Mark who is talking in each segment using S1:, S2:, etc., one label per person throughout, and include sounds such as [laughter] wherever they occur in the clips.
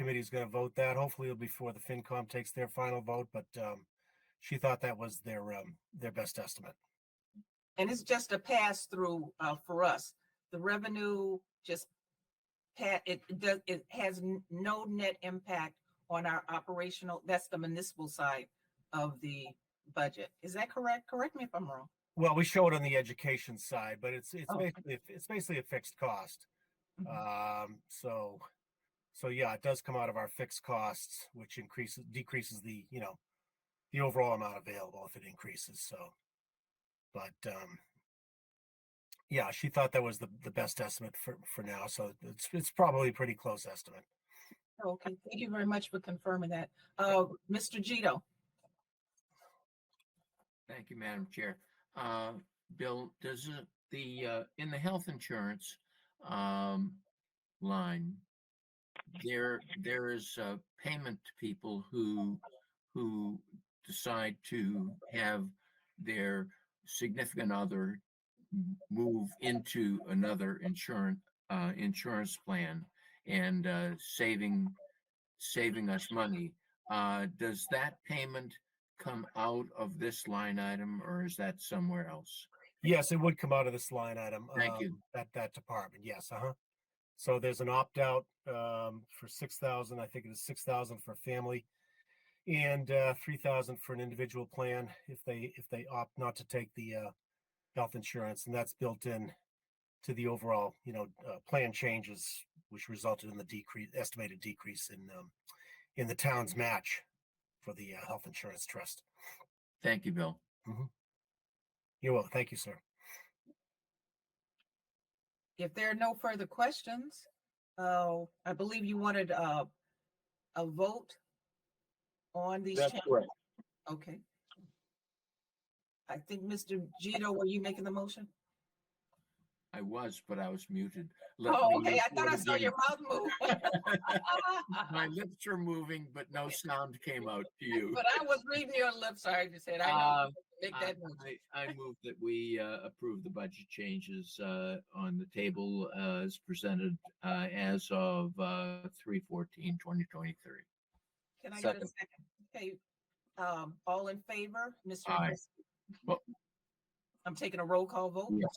S1: committee's going to vote that. Hopefully it'll be before the FinCom takes their final vote, but, um, she thought that was their, um, their best estimate.
S2: And it's just a pass through uh for us. The revenue just pat, it it does, it has n- no net impact on our operational, that's the municipal side of the budget. Is that correct? Correct me if I'm wrong.
S1: Well, we show it on the education side, but it's, it's
S2: Oh.
S1: basically, it's basically a fixed cost.
S2: Mhm.
S1: Um, so, so yeah, it does come out of our fixed costs, which increases, decreases the, you know, the overall amount available if it increases, so. But, um, yeah, she thought that was the, the best estimate for, for now, so it's, it's probably a pretty close estimate.
S2: Okay, thank you very much for confirming that. Uh, Mr. Gito,
S3: Thank you, Madam Chair. Uh, Bill, does it- the, uh, in the health insurance, um, line, there, there is a payment to people who, who decide to have their significant other m- move into another insurance, uh, insurance plan and, uh, saving, saving us money. Uh, does that payment come out of this line item or is that somewhere else?
S1: Yes, it would come out of this line item.
S3: Thank you.
S1: um, That, that department, yes, uh-huh. So there's an opt-out, um, for six thousand, I think it is six thousand for family. And, uh, three thousand for an individual plan if they, if they opt not to take the, uh, health insurance and that's built in to the overall, you know, uh, plan changes, which resulted in the decrease, estimated decrease in, um, in the town's match for the, uh, health insurance trust.
S3: Thank you, Bill.
S1: You're welcome. Thank you, sir.
S2: if there are no further questions, uh, I believe you wanted uh a vote on these changes. Okay. I think, Mr. Gito, were you making the motion?
S3: I was, but I was muted. Let
S2: Oh,
S3: me
S2: okay, I
S3: do
S2: thought
S3: it
S2: I saw
S3: again.
S2: [laughs] your mouth move.
S3: [laughs] My
S2: But
S3: lips are moving, but no sound came out to you.
S2: I was reading your lips, I just said, I know,
S3: Uh,
S2: make
S3: I
S2: that motion.
S3: I- I move that we uh, approve the budget changes uh, on the table uh, as presented uh, as of uh, 3/14/2023.
S2: Can I get a second?
S3: second.
S2: Okay, um, all in favor, Mr.
S3: Aye.
S2: McCrisky?
S3: Well-
S2: I'm taking a roll call vote.
S3: Yes.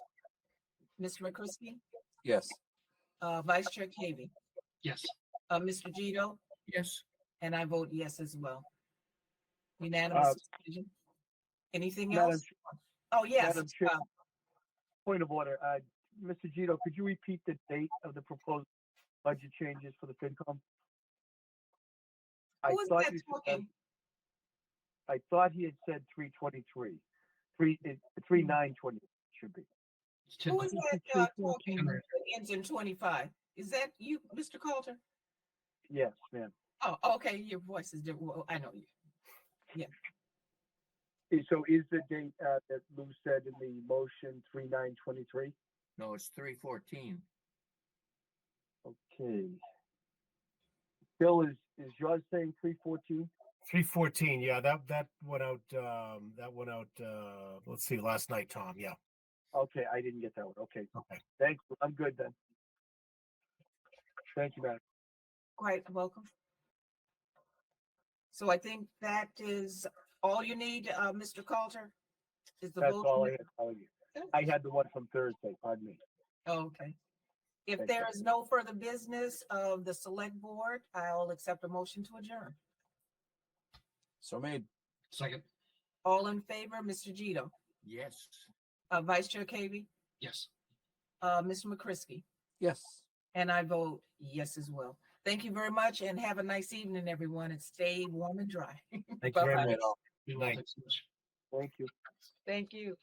S2: Mr. McCrisky,
S4: Yes.
S2: uh, Vice Chair Cavy,
S4: Yes.
S2: uh, Mr. Gito,
S3: Yes,
S2: and I vote yes as well.
S4: Uh,
S2: Unanimous decision. Anything else? Oh, yes.
S4: Madam Chair.
S2: uh,
S4: Point of order, uh, Mr. Gito, could you repeat the date of the proposed budget changes for the FinCom? I
S2: Who was
S4: thought
S2: that
S4: you said-
S2: talking?
S4: I thought he had said three twenty-three, three, it, three nine twenty should be.
S2: Who is that uh, talking that ends in twenty-five? Is that you, Mr. Coulter?
S4: Yes, ma'am.
S2: Oh, okay, your voice is different. Well, I know you.
S4: Eh, So is the date, uh, that Lou said in the motion three nine twenty-three?
S3: no, it's 3/14.
S4: Okay. Bill, is, is yours saying three fourteen?
S1: Three fourteen, yeah, that that went out. Um, that went out. Uh, let's see, last night, Tom. Yeah,
S4: Okay, I didn't get that one. Okay.
S1: Okay.
S4: Thank you. I'm good then. Thank you, Madam.
S2: Quite welcome. So I think that is all you need, uh, Mr. Coulter? Is the
S4: That's all I
S2: motion?
S4: had to tell you. I had the one from Thursday, pardon me.
S2: Okay. If
S4: Thank
S2: there
S4: you.
S2: is no further business of the select board, I'll accept a motion to adjourn.
S5: So made.
S6: Second,
S2: All in favor, Mr. Gito,
S3: Yes,
S2: uh, Vice Chair Cavy,
S6: yes.
S2: uh, Mr. McCrisky,
S5: Yes.
S2: and I vote yes as well. Thank you very much and have a nice evening, everyone, and stay warm and dry.
S1: thank you very
S2: Bye-bye.
S1: much.
S6: Bill,
S1: Night.
S6: thanks so much.
S4: Thank you.
S2: Thank you.